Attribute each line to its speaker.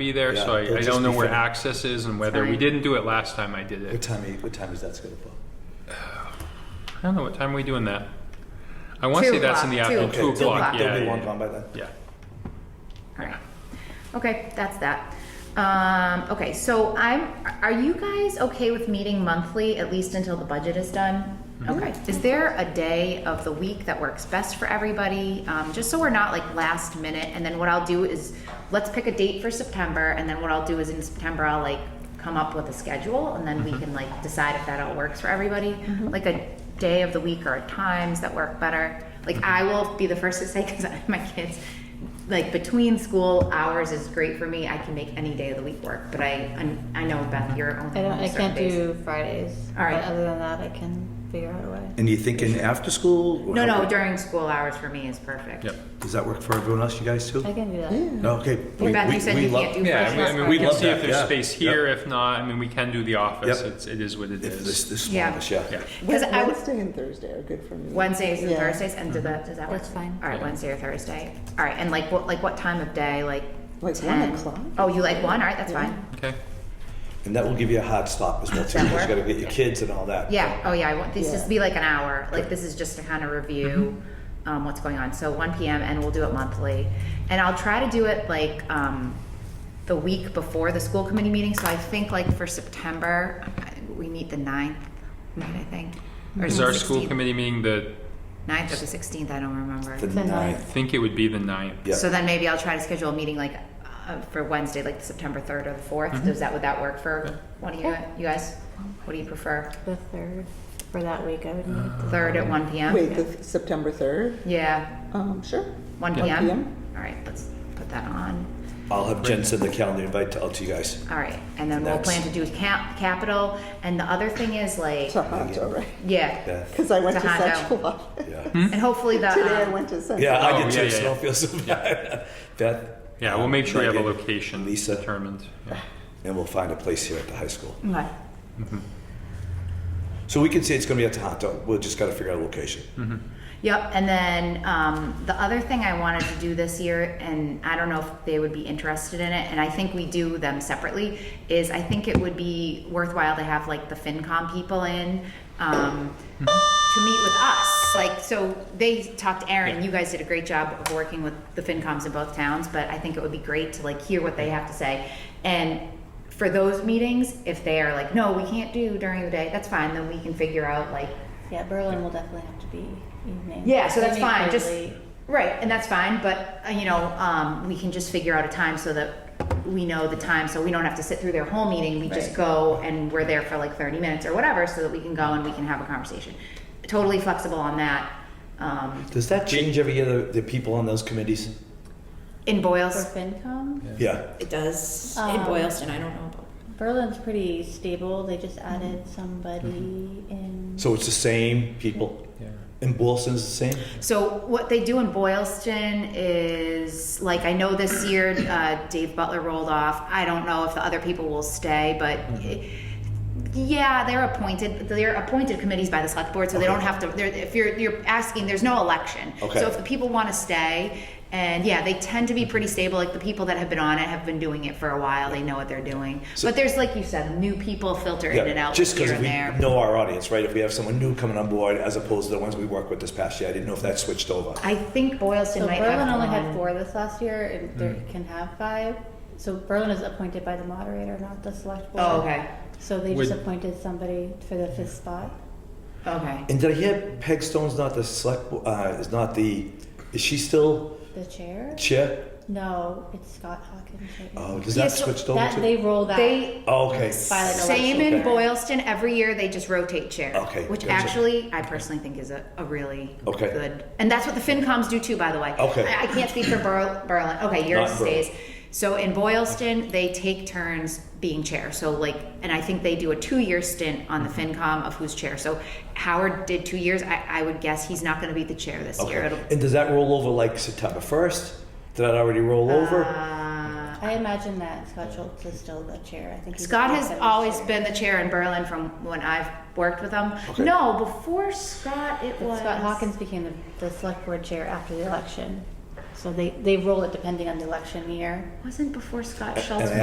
Speaker 1: be there, so
Speaker 2: Yeah,
Speaker 1: I, I
Speaker 2: it'll
Speaker 1: don't
Speaker 2: just
Speaker 1: know
Speaker 2: be
Speaker 1: where
Speaker 2: fun.
Speaker 1: access is and whether, we
Speaker 3: Fine.
Speaker 1: didn't do it last time I did
Speaker 2: What
Speaker 1: it.
Speaker 2: time, are you- what time is that scheduled for?
Speaker 1: I don't know, what time are we doing that? I wanna say
Speaker 3: Two
Speaker 1: that's in the
Speaker 3: o'clock,
Speaker 1: afternoon,
Speaker 3: two.
Speaker 1: two
Speaker 3: Two
Speaker 1: o'clock,
Speaker 3: o'clock.
Speaker 1: yeah,
Speaker 2: There'll be one
Speaker 1: yeah,
Speaker 2: gone by then.
Speaker 1: yeah.
Speaker 3: All right. Okay, that's that. Um, okay, so I'm, are you guys okay with meeting monthly, at least until the budget is done? Okay, is there a day of the week that works best for everybody? Um, just so we're not like last minute, and then what I'll do is, let's pick a date for September, and then what I'll do is in September, I'll like come up with a schedule, and then we can like decide if that all works for everybody. Like a day of the week or times that work better. Like I will be the first to say, because my kids, like between school hours is great for me. I can make any day of the week work, but I I'm- I know Beth, you're only
Speaker 4: I don't.
Speaker 3: home
Speaker 4: I
Speaker 3: certain
Speaker 4: can't
Speaker 3: days.
Speaker 4: do Fridays.
Speaker 3: All right.
Speaker 4: But other than that, I can figure out a way.
Speaker 2: And you thinking after school? or
Speaker 3: No,
Speaker 2: how-
Speaker 3: no, during school hours for me is perfect.
Speaker 1: Yep.
Speaker 2: Does that work for everyone else, you guys too?
Speaker 4: I can do that.
Speaker 2: No, okay. we-
Speaker 3: Beth,
Speaker 2: we-
Speaker 3: you said
Speaker 2: we
Speaker 3: you
Speaker 2: love-
Speaker 3: can't do
Speaker 1: Yeah,
Speaker 3: first
Speaker 1: I mean, I
Speaker 3: class
Speaker 1: mean, we
Speaker 3: party.
Speaker 1: can
Speaker 2: Love
Speaker 1: see if
Speaker 2: that,
Speaker 1: there's
Speaker 2: yeah.
Speaker 1: space here,
Speaker 2: Yep.
Speaker 1: if not, I mean, we can do the office,
Speaker 2: Yep.
Speaker 1: it's, it is what it
Speaker 2: If this,
Speaker 1: is.
Speaker 2: this
Speaker 3: Yeah.
Speaker 2: one, yeah.
Speaker 1: Yeah,
Speaker 3: Because I would-
Speaker 5: Wednesday and Thursday are good for me.
Speaker 3: Wednesdays and
Speaker 5: Yeah.
Speaker 3: Thursdays, and do
Speaker 5: Mm-hmm.
Speaker 3: that, does that work?
Speaker 4: That's fine.
Speaker 3: All right,
Speaker 1: Yeah.
Speaker 3: Wednesday or Thursday. All right, and like what, like what time of day, like
Speaker 5: Like
Speaker 3: 10?
Speaker 5: one o'clock?
Speaker 3: Oh, you like one, all right, that's fine.
Speaker 1: okay,
Speaker 2: And that will give you a hard stop as well too,
Speaker 3: That
Speaker 2: because you
Speaker 3: work?
Speaker 2: gotta get your kids and all that.
Speaker 3: Yeah, oh yeah, I want, this
Speaker 5: Yeah.
Speaker 3: just be like an hour, like this is just to kind of review, um, what's going on, so one PM, and we'll do it monthly. And I'll try to do it like, um, the week before the school committee meeting, so I think like for September, I- we meet the ninth, right, I think? Or
Speaker 1: is
Speaker 3: it
Speaker 1: our
Speaker 3: the
Speaker 1: school
Speaker 3: 16th?
Speaker 1: committee meeting the,
Speaker 3: Ninth or the sixteenth, I don't remember.
Speaker 2: The
Speaker 4: The
Speaker 2: ninth,
Speaker 4: ninth.
Speaker 1: I think it would be the ninth.
Speaker 2: yeah.
Speaker 3: So then maybe I'll try to schedule a meeting like uh, for Wednesday, like September third or the 4th
Speaker 1: Mm-hmm.
Speaker 3: Does that would that work for one of you, you guys? What do you prefer?
Speaker 4: The third for that week, I would need.
Speaker 1: Uh,
Speaker 3: Third at one p.m.
Speaker 5: Wait, the th- September third?
Speaker 3: yeah,
Speaker 5: Um, sure.
Speaker 3: one
Speaker 1: Yeah.
Speaker 3: p.m.
Speaker 5: 1 p.m.
Speaker 3: All right, let's put that on.
Speaker 2: I'll have Jen send the calendar invite to, out to you guys.
Speaker 3: All right, and then we'll
Speaker 2: Next.
Speaker 3: plan to do cap capital. And the other thing is like,
Speaker 5: Tohoto, right?
Speaker 3: yeah,
Speaker 2: Yeah,
Speaker 5: Because I went to
Speaker 3: Tohoto.
Speaker 5: Central Office.
Speaker 2: yeah.
Speaker 3: and hopefully the
Speaker 5: Today I
Speaker 3: um,
Speaker 5: went to Central.
Speaker 2: Yeah,
Speaker 1: Oh,
Speaker 2: I did
Speaker 1: yeah,
Speaker 2: too,
Speaker 1: yeah,
Speaker 2: so don't feel so bad. Beth?
Speaker 1: Yeah, we'll make sure we have a
Speaker 2: Megan,
Speaker 1: location
Speaker 2: Lisa,
Speaker 1: determined, yeah.
Speaker 2: and we'll find a place here at the high school.
Speaker 3: okay.
Speaker 2: So we can say it's gonna be at Tohoto, we'll just gotta figure out a location.
Speaker 3: Yep, and then um, the other thing I wanted to do this year, and I don't know if they would be interested in it, and I think we do them separately, is I think it would be worthwhile to have like the FinCom people in um, to meet with us. Like, so they talked to Aaron, you guys did a great job of working with the FinComs in both towns, but I think it would be great to like hear what they have to say. And for those meetings, if they are like, no, we can't do during the day, that's fine, then we can figure out like,
Speaker 4: Yeah, Berlin will definitely have to be evening.
Speaker 3: yeah, so that's
Speaker 4: Evening
Speaker 3: fine.
Speaker 4: or
Speaker 3: Just
Speaker 4: late.
Speaker 3: right, and that's fine. But uh, you know, um, we can just figure out a time so that we know the time, so we don't have to sit through their whole meeting. We just
Speaker 4: Right.
Speaker 3: go and we're there for like thirty minutes or whatever, so that we can go and we can have a conversation. Totally flexible on that. Um,
Speaker 2: Does that change every year, the, the people on those committees?
Speaker 3: in
Speaker 4: for
Speaker 3: Boyles,
Speaker 4: FinCom.
Speaker 2: Yeah,
Speaker 6: It does
Speaker 4: Um,
Speaker 6: in Boylston. I don't know about
Speaker 4: Berlin's pretty stable. They just added
Speaker 3: Mm-hmm.
Speaker 4: somebody in.
Speaker 2: so it's the same people,
Speaker 1: Yeah.
Speaker 2: and Boylston's the same?
Speaker 3: So what they do in Boylston is like I know this year uh, Dave Butler rolled off. I don't know if the other people will stay, but.
Speaker 2: Mm-hmm.
Speaker 3: yeah, they're appointed. They're appointed committees by the select board, so they
Speaker 2: Okay.
Speaker 3: don't have to. They're, if you're you're asking, there's no election.
Speaker 2: Okay.
Speaker 3: So if the people want to stay, and yeah, they tend to be pretty stable. Like the people that have been on it have been doing it for a while. They know what they're doing.
Speaker 2: So-
Speaker 3: but there's like you said, new people filter in and out
Speaker 2: just
Speaker 3: here
Speaker 2: because
Speaker 3: and
Speaker 2: we
Speaker 3: there.
Speaker 2: know our audience, right? If we have someone new coming on board, as opposed to the ones we worked with this past year, I didn't know if that switched over.
Speaker 3: I think Boylston
Speaker 4: So
Speaker 3: might
Speaker 4: Berlin
Speaker 3: have
Speaker 4: only
Speaker 3: one.
Speaker 4: had four this last year, and they can have five. So Berlin is appointed by the moderator, not the select board.
Speaker 3: Oh, okay,
Speaker 4: So they just
Speaker 1: Would-
Speaker 4: appointed somebody for the fifth spot.
Speaker 3: okay.
Speaker 2: And did I hear Peg Stone's not the select? bo- Uh, is not the? Is she still
Speaker 4: The chair?
Speaker 2: chair?
Speaker 4: No, it's Scott Hawkins. right now.
Speaker 2: Oh, does
Speaker 3: Yeah,
Speaker 2: that
Speaker 3: so
Speaker 2: switched over
Speaker 4: that
Speaker 2: to?
Speaker 4: they roll that.
Speaker 3: They
Speaker 2: oh, okay.
Speaker 4: by like
Speaker 3: Same
Speaker 4: election.
Speaker 3: in
Speaker 2: Okay.
Speaker 3: Boylston, every year they just rotate chair.
Speaker 2: Okay,
Speaker 3: Which
Speaker 2: gotcha.
Speaker 3: actually, I personally think is a, a really
Speaker 2: Okay.
Speaker 3: good, and that's what the FinComs do too, by the way.
Speaker 2: Okay.
Speaker 3: I, I can't speak for Ber- Berlin, okay, yours
Speaker 2: Not Berlin.
Speaker 3: stays. So in Boylston, they take turns being chair, so like, and I think they do a two-year stint on the
Speaker 2: Mm-hmm.
Speaker 3: FinCom of who's chair. So Howard did two years, I, I would guess he's not gonna be the chair this year. It'll-
Speaker 2: Okay. And does that roll over like September first? Did that already roll over?
Speaker 3: Uh,
Speaker 4: I imagine that Scott Schultz is still the chair. I think he's
Speaker 3: Scott has
Speaker 4: the chair.
Speaker 3: always been the chair in Berlin from when I've worked with him.
Speaker 2: Okay.
Speaker 3: No, before Scott, it
Speaker 4: But
Speaker 3: was.
Speaker 4: Scott Hawkins became the, the select board chair after the election.
Speaker 7: So they, they roll it depending on the election year.
Speaker 4: Wasn't before Scott
Speaker 3: And
Speaker 4: Schultz
Speaker 3: I